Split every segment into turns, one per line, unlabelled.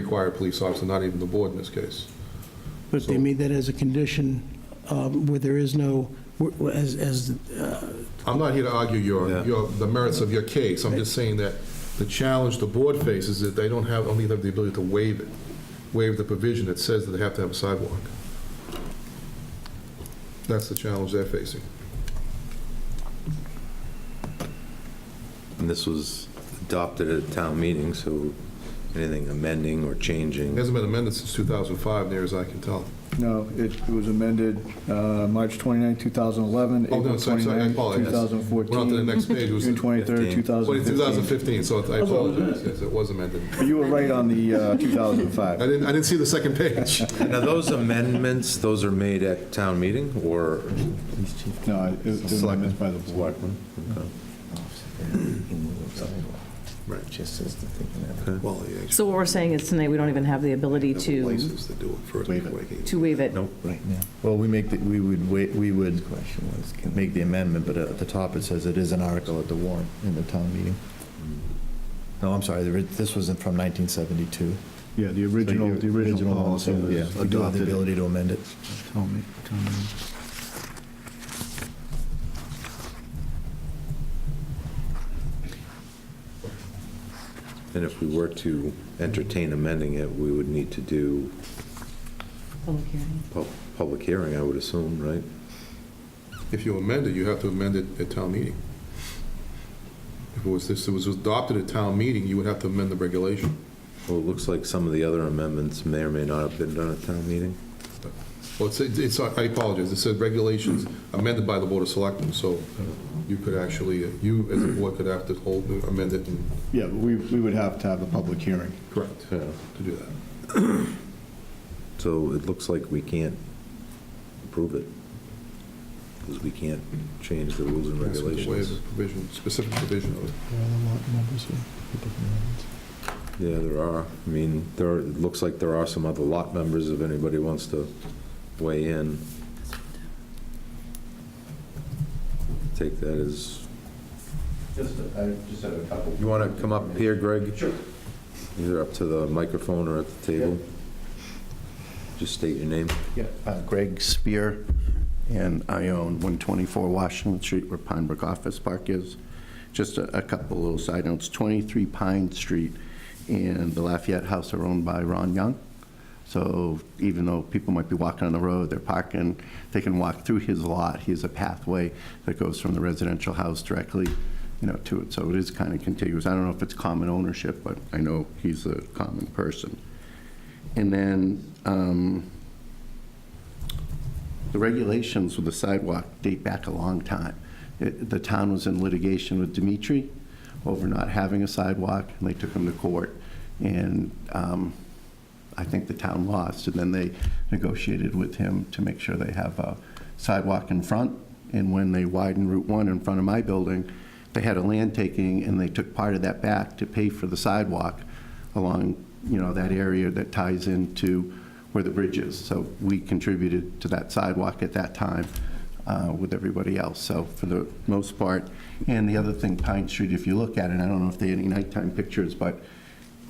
require a police officer, not even the board in this case.
But they made that as a condition um, where there is no, where- where- as, as, uh,
I'm not here to argue your,
Yeah.
your, the merits of your case. I'm just saying that the challenge the board faces is that they don't have, only have the ability to waive it, waive the provision that says that they have to have a sidewalk. That's the challenge they're facing.
And this was adopted at a town meeting, so anything amending or
It
changing,
hasn't been amended since 2005, near as I can tell.
No, it it was amended uh, March 29, 2011,
Oh, no,
April
sorry, sorry, I
29,
apologize. Went on to the
2014,
next page, it was
June 23,
15.
2015.
2015, so I apologize, yes, it was amended.
But You were right on the uh,
I
2005.
didn't, I didn't see the second page.
now those amendments, those are made at town meeting or?
No, it it was amended by the board.
Right.
Just as the thing
Well, yeah, it's
So what we're saying is tonight, we don't even have the ability
the
to,
places to do it first
Waive it.
before they-
to waive it.
Nope.
right now.
Well, we make, the- we would, wait. we would
Question was, can
make the amendment, but at the top it says it is an article at the warrant in the town meeting. No, I'm sorry, there- this wasn't from 1972.
Yeah, the
So
original,
your
the original policy
one, so,
was
Yeah, we do have the
adopted.
ability to amend it.
Tell me, tell me.
And if we were to entertain amending it, we would need to do
Public hearing.
pub- public hearing, I would assume, right?
If you amend it, you have to amend it at town meeting. If it was, this was adopted at town meeting, you would have to amend the regulation.
Well, it looks like some of the other amendments may or may not have been done at town meeting.
Well, it's, it's, I apologize, it said regulations amended by the Board of Selectmen, so you could actually, you as a board could have to hold, amend it and
Yeah, but we we would have to have a public hearing.
correct
Yeah.
to do that.
So it looks like we can't approve it because we can't change the rules and
Ask them to waive
regulations.
the Provision, specific provision of it.
Yeah, there are. I mean, there, are- it looks like there are some other lot members if anybody wants to weigh in. Take that as,
Just, I just have a couple.
you want to come up here, Greg? Sure. Either up to the microphone or at the table. Just state your name.
Uh, Greg Spear, and I own 124 Washington Street where Pine Brook Office Park is. Just a a couple little side notes, 23 Pine Street and the Lafayette House are owned by Ron Young. So even though people might be walking on the road, they're parking, they can walk through his lot. He has a pathway that goes from the residential house directly, you know, to it. So it is kind of contiguous. I don't know if it's common ownership, but I know he's a common person. And then, um, the regulations with the sidewalk date back a long time. It- The town was in litigation with Dimitri over not having a sidewalk, and they took him to court. And um, I think the town lost, and then they negotiated with him to make sure they have a sidewalk in front. And when they widened Route 1 in front of my building, they had a land taking, and they took part of that back to pay for the sidewalk along, you know, that area that ties into where the bridge is. So we contributed to that sidewalk at that time uh, with everybody else, so for the most part. And the other thing, Pine Street, if you look at it, I don't know if they had any nighttime pictures, but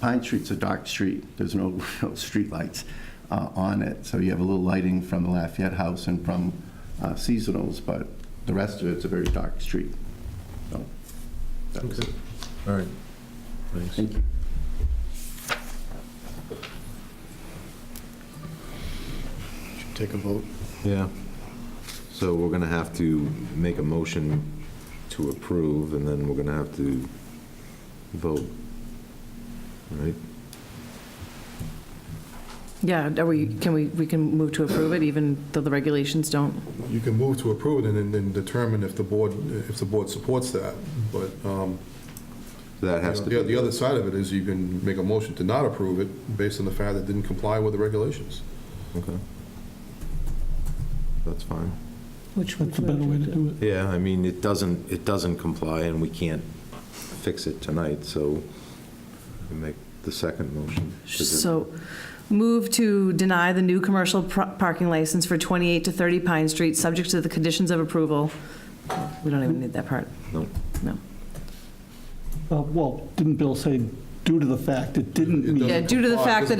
Pine Street's a dark street. There's no real streetlights uh, on it. So you have a little lighting from the Lafayette House and from uh, seasonals, but the rest of it's a very dark street. So that was it.
All right. Thanks.
Thank you.
Take a vote.
Yeah. So we're going to have to make a motion to approve, and then we're going to have to vote, right?
Yeah, are we, can we, we can move to approve it even though the regulations don't?
You can move to approve it and then- then determine if the board, if the board supports that, but, um,
That has to
The- The
be,
other side of it is you can make a motion to not approve it based on the fact that it didn't comply with the regulations.
okay. That's fine.
Which
that's a better way to do it.
Yeah, I mean, it doesn't, it doesn't comply, and we can't fix it tonight, so we make the second motion. Is it-
So move to deny the new commercial pro- parking license for 28 to 30 Pine Street, subject to the conditions of approval. We don't even need that part.
No.
No.
Uh, Well, didn't Bill say due to the fact it didn't meet?
Yeah, due to the
comply.
fact that